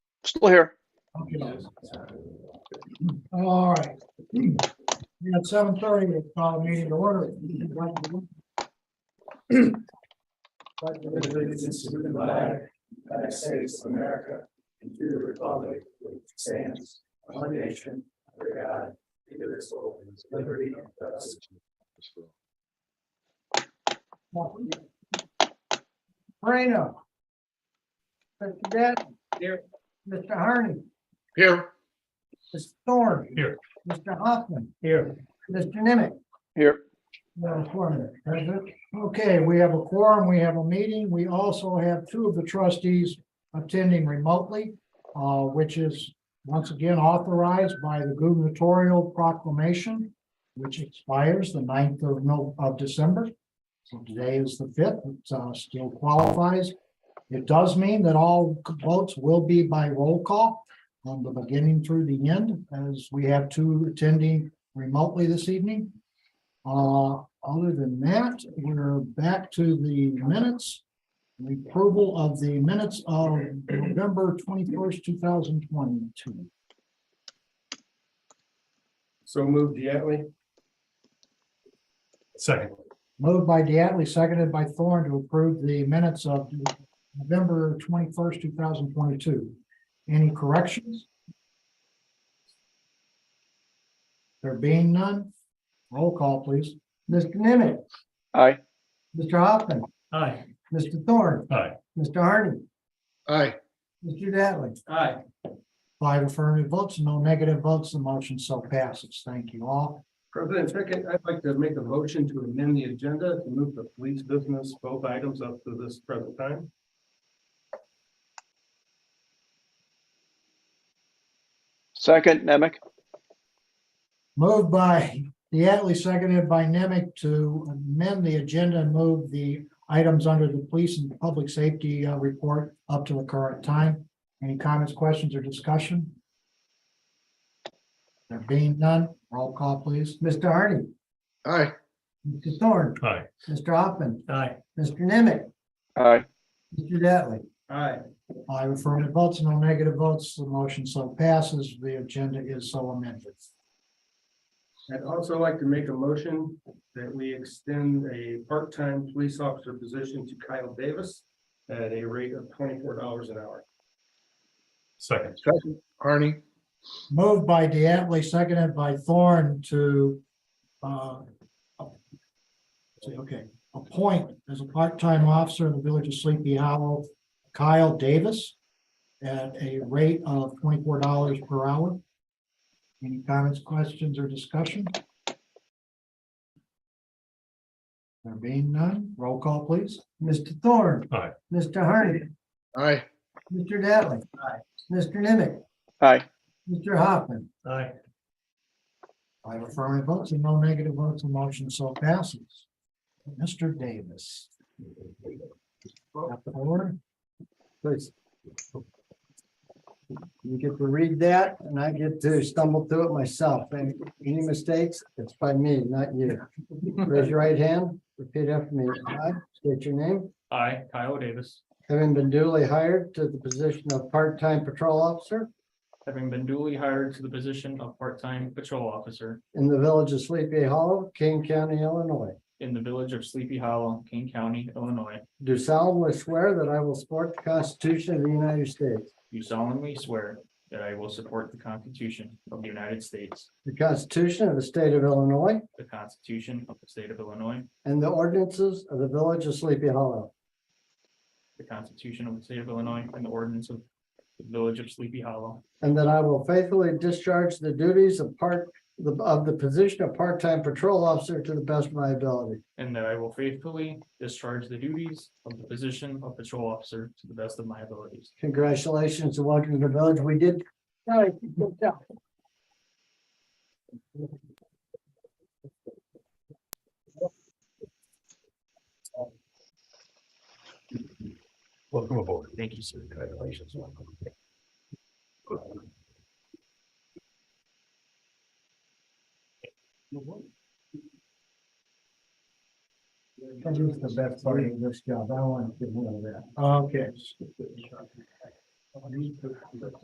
Still here. Okay. All right. We're At seven thirty, we call the meeting to order. But the allegiance to the flag, United States of America, and to the republic, which stands, one nation, under God, indivisible, with liberty and justice. Moreno. Mr. Denton. Here. Mr. Harney. Here. Mr. Thorne. Here. Mr. Hoffman. Here. Mr. Nimitz. Here. Madam Clerk, present. Okay, we have a quorum, we have a meeting. We also have two of the trustees attending remotely, uh, which is once again authorized by the gubernatorial proclamation, which expires the 9th of No, of December. So today is the fifth, it uh, still qualifies. It does mean that all votes will be by roll call from the beginning through the end, as we have two attending remotely this evening. Uh, other than that, we're back to the minutes. The approval of the minutes of November twenty-first, two thousand twenty-two. So moved Diatley? Second. Moved by Diatley, seconded by Thorne to approve the minutes of November twenty-first, two thousand twenty-two. Any corrections? There being none, roll call, please. Mr. Nimitz, Aye. Mr. Hoffman, Aye. Mr. Thorne, Aye. Mr. Hardy, Aye. Mr. Dattley. Aye. Five affirmative votes, no negative votes, the motion so passes. Thank you all. President Pickett, I'd like to make a motion to amend the agenda to move the police business both items up to this present time. Second, Nemec. Moved by Diatley, seconded by Nemec to amend the agenda and move the items under the police and public safety uh, report up to the current time. Any comments, questions, or discussion? There being none, roll call, please. Mr. Hardy. Aye. Mr. Thorne. Aye. Mr. Hoffman. Aye. Mr. Nemec. Aye. Mr. Dattley. Aye. Five affirmative votes, no negative votes. The motion so passes. The agenda is so amended. I'd also like to make a motion that we extend a part-time police officer position to Kyle Davis at a rate of twenty-four dollars an hour. Second, Harney? Moved by Diatley, seconded by Thorne to, uh, say, okay, appoint as a part-time officer in the village of Sleepy Hollow, Kyle Davis at a rate of twenty-four dollars per hour. Any comments, questions, or discussion? There being none, roll call, please. Mr. Thorne. Aye. Mr. Hardy. Aye. Mr. Dattley. Aye. Mr. Nimitz. Aye. Mr. Hoffman. Aye. I have affirmative votes and no negative votes, the motion so passes. Mr. Davis. Got the order? Please. You get to read that and I get to stumble through it myself. And any mistakes, it's by me, not you. Raise your right hand, repeat after me. I state your name. I, Kyle Davis, Having been duly hired to the position of part-time patrol officer having been duly hired to the position of part-time patrol officer in the village of Sleepy Hollow, King County, Illinois. in the village of Sleepy Hollow, King County, Illinois, Do solemnly swear that I will support the Constitution of the United States, do solemnly swear that I will support the Constitution of the United States, the Constitution of the State of Illinois, the Constitution of the State of Illinois, and the ordinances of the village of Sleepy Hollow. the Constitution of the State of Illinois, and the ordinance of the village of Sleepy Hollow, And that I will faithfully discharge the duties of part, the- of the position of part-time patrol officer to the best of my ability. and that I will faithfully discharge the duties of the position of patrol officer to the best of my abilities. Congratulations and welcome to the village. We did. All right, good job. Welcome aboard. Thank you, sir. Congratulations. This is the best part of this job. I want to get rid of that. Okay.